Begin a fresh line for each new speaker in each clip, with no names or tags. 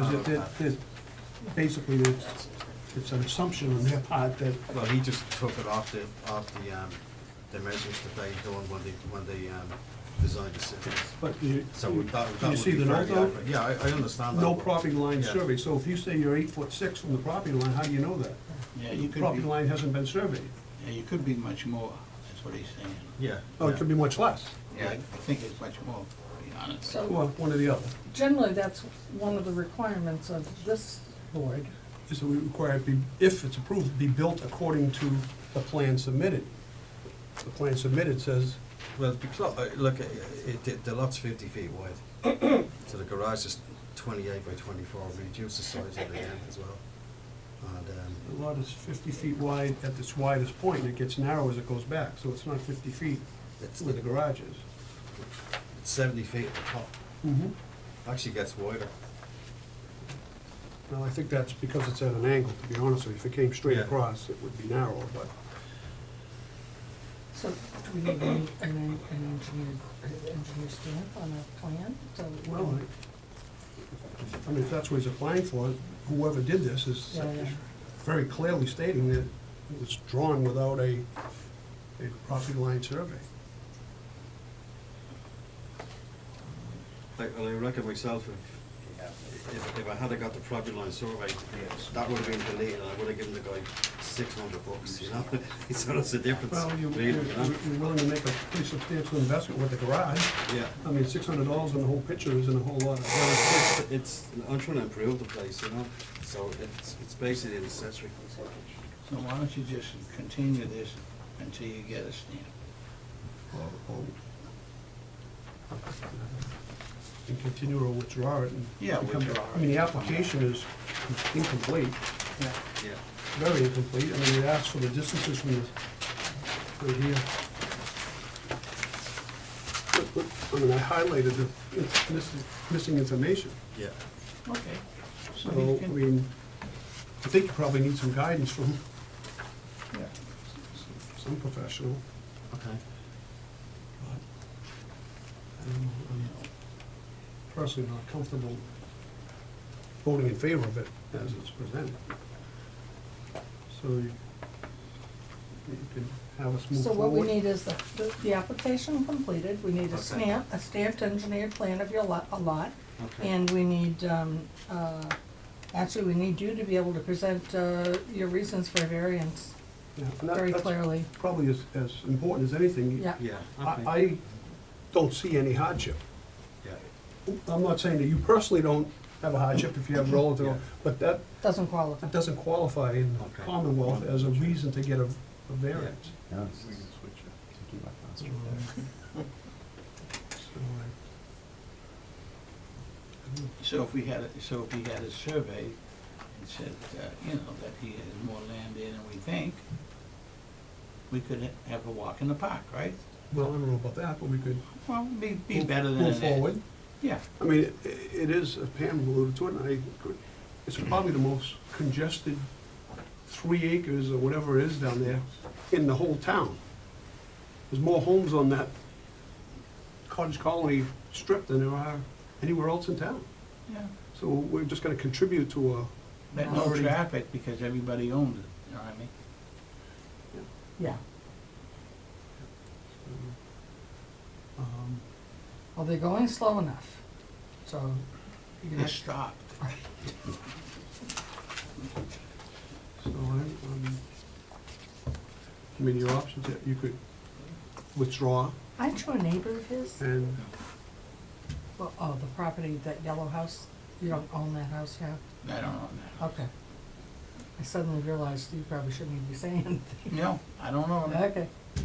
Is that, that, that, basically, it's, it's an assumption on their part that,
Well, he just took it off the, off the, um, the measures that they doing when they, when they, um, designed the cities.
but you,
So we thought, we
Do
thought.
Hmm. you
we'd
see
be
the
fair
note,
to
though?
the- Yeah, I, I understand that.
no property line
Yeah.
survey, so if you say you're eight foot six from the property line, how do you know that?
Yeah,
The
you could
property
be,
line hasn't been surveyed.
yeah, you could be much more, that's what he's saying.
Yeah.
Oh,
yeah.
it could be much less,
Yeah, I think it's much more, to be honest.
well,
So
one or the other.
generally, that's one of the requirements of this board.
Is that we require, it be if it's approved, be built according to the plan submitted. The plan submitted says,
Well, because, uh, look, uh, it, it, the lot's fifty feet wide, so the garage is twenty-eight by twenty-four, reduce the size of the end as well. And, um,
the lot is fifty feet wide at its widest point, and it gets narrow as it goes back, so it's not fifty feet
it's
where the garage is.
it's seventy feet at the top,
Mm-hmm.
actually gets wider.
Well, I think that's because it's at an angle, to be honest with you. If it came straight
Yeah.
across, it would be narrow, but
So do we need an an- an engineer, an engineer stamp on a plan? So
Well, I mean, if that's what he's applying for, whoever did this is
Yeah, yeah.
very clearly stating that it was drawn without a, a property line survey.
Like, well, I reckon myself, if, if, if I had got the property line survey, that would have been deleted, and I would have given the guy six hundred bucks, you know? So that's the difference,
Well, you,
really,
you're
you know?
you're willing to make a pretty substantial investment with the garage.
Yeah,
I mean, six hundred dollars on the whole picture isn't a whole lot of money.
it's, I'm trying to improve the place, you know, so it's, it's basically an accessory.
So why don't you just continue this until you get a stamp?
oh. And continue or withdraw it and.
Yeah,
become-
withdraw
I mean, the
it.
application is incomplete.
Yeah.
Yeah,
very incomplete, I mean, it asks for the distances from this, right here. Look, look, I mean, I highlighted the, it's missing, missing information,
yeah.
Okay.
so,
he
I
can-
mean, I think you probably need some guidance from
Yeah.
some professional.
Okay.
I don't know, I'm Personally, not comfortable voting in favor of it as it's presented. So you, you can have us move
So
forward.
what we need is the, the- the application completed, we need a
Okay.
stamp, a stamped engineered plan of your lot, a lot.
Okay.
And we need, um, uh, actually, we need you to be able to present, uh, your reasons for variance
Yeah, and that-
very
that's-
clearly.
probably as, as important as anything.
Yeah.
Yeah,
I,
okay,
I don't see any hardship.
yeah,
I'm not saying that you personally don't have a hardship if you have relative,
Yeah.
but that,
Doesn't qualify.
that doesn't qualify in the
Okay.
Commonwealth as a reason to get a, a variance.
Yeah.
So uh, I-
So if we had, a- so if we had a survey and said, uh, you know, that he has more land there than we think, we could ha- have a walk in the park, right?
Well, I don't know about that, but we could.
Well, be, be
move-
better than
Move
that.
forward.
Yeah,
I mean, it- it is, as Pam alluded to it, and I, agree, it's probably the most congested three acres or whatever it is down there in the whole town. There's more homes on that cottage colony strip than there are anywhere else in town.
yeah.
So we're just gonna contribute to a,
But no
Already-
traffic because everybody owns it, you know what I mean?
Yeah.
um,
Well, they're going slow enough, so
You can just stop.
so I, um, I mean, your options, yeah, you could withdraw
Aren't you a neighbor of his?
and,
Well, oh, the property, that yellow house, you don't own that house now?
I don't know that.
Okay. I suddenly realized you probably shouldn't even be saying anything.
No, I don't know that.
Okay.
I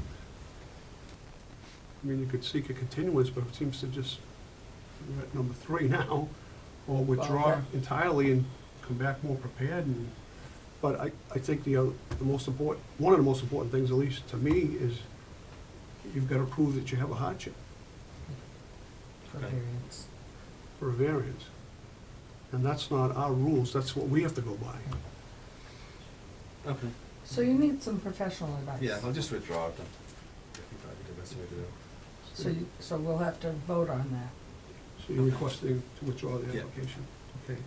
mean, you could seek a continuance, but it seems to just, we're at number three now, or withdraw
Okay.
entirely and come back more prepared and, but I, I think the, other- the most important, one of the most important things, at least to me, is you've gotta prove that you have a hardship
For
Okay.
variance.
for a variance. And that's not our rules, that's what we have to go by.
okay.
So you need some professional advice.
Yeah, I'll just withdraw it then. I think that'd be the best way to do it.
So you, so we'll have to vote on that.
So you're requesting to withdraw the
Yeah.
application? Okay.